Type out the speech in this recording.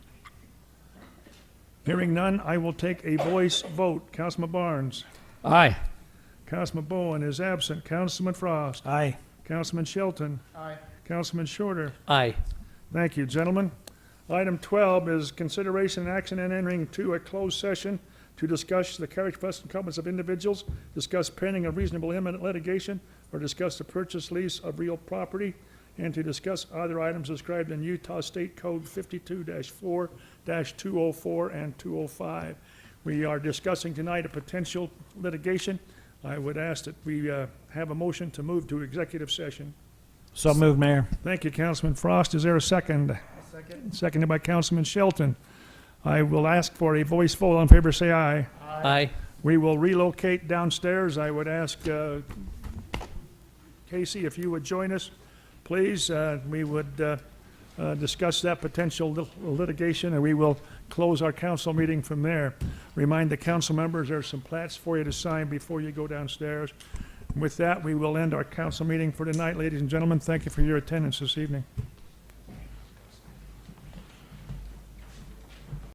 Hearing none, I will take a voice vote. Councilman Barnes. Aye. Councilman Bowen is absent. Councilman Frost. Aye. Councilman Shelton. Aye. Councilman Shorter. Aye. Thank you, gentlemen. Item 12 is consideration and action and entering to a closed session to discuss the carriage plus incumbents of individuals, discuss pending of reasonable imminent litigation, or discuss the purchase lease of real property, and to discuss other items described in Utah State Code 52-4-204 and 205. We are discussing tonight a potential litigation. I would ask that we uh, have a motion to move to executive session. So moved, Mayor. Thank you, Councilman Frost. Is there a second? Second. Seconded by Councilman Shelton. I will ask for a voice vote. All in favor, say aye. Aye. We will relocate downstairs. I would ask uh, Casey if you would join us, please. Uh, We would uh, uh, discuss that potential lit- litigation, and we will close our council meeting from there. Remind the council members, there's some plats for you to sign before you go downstairs. With that, we will end our council meeting for tonight, ladies and gentlemen. Thank you for your attendance this evening.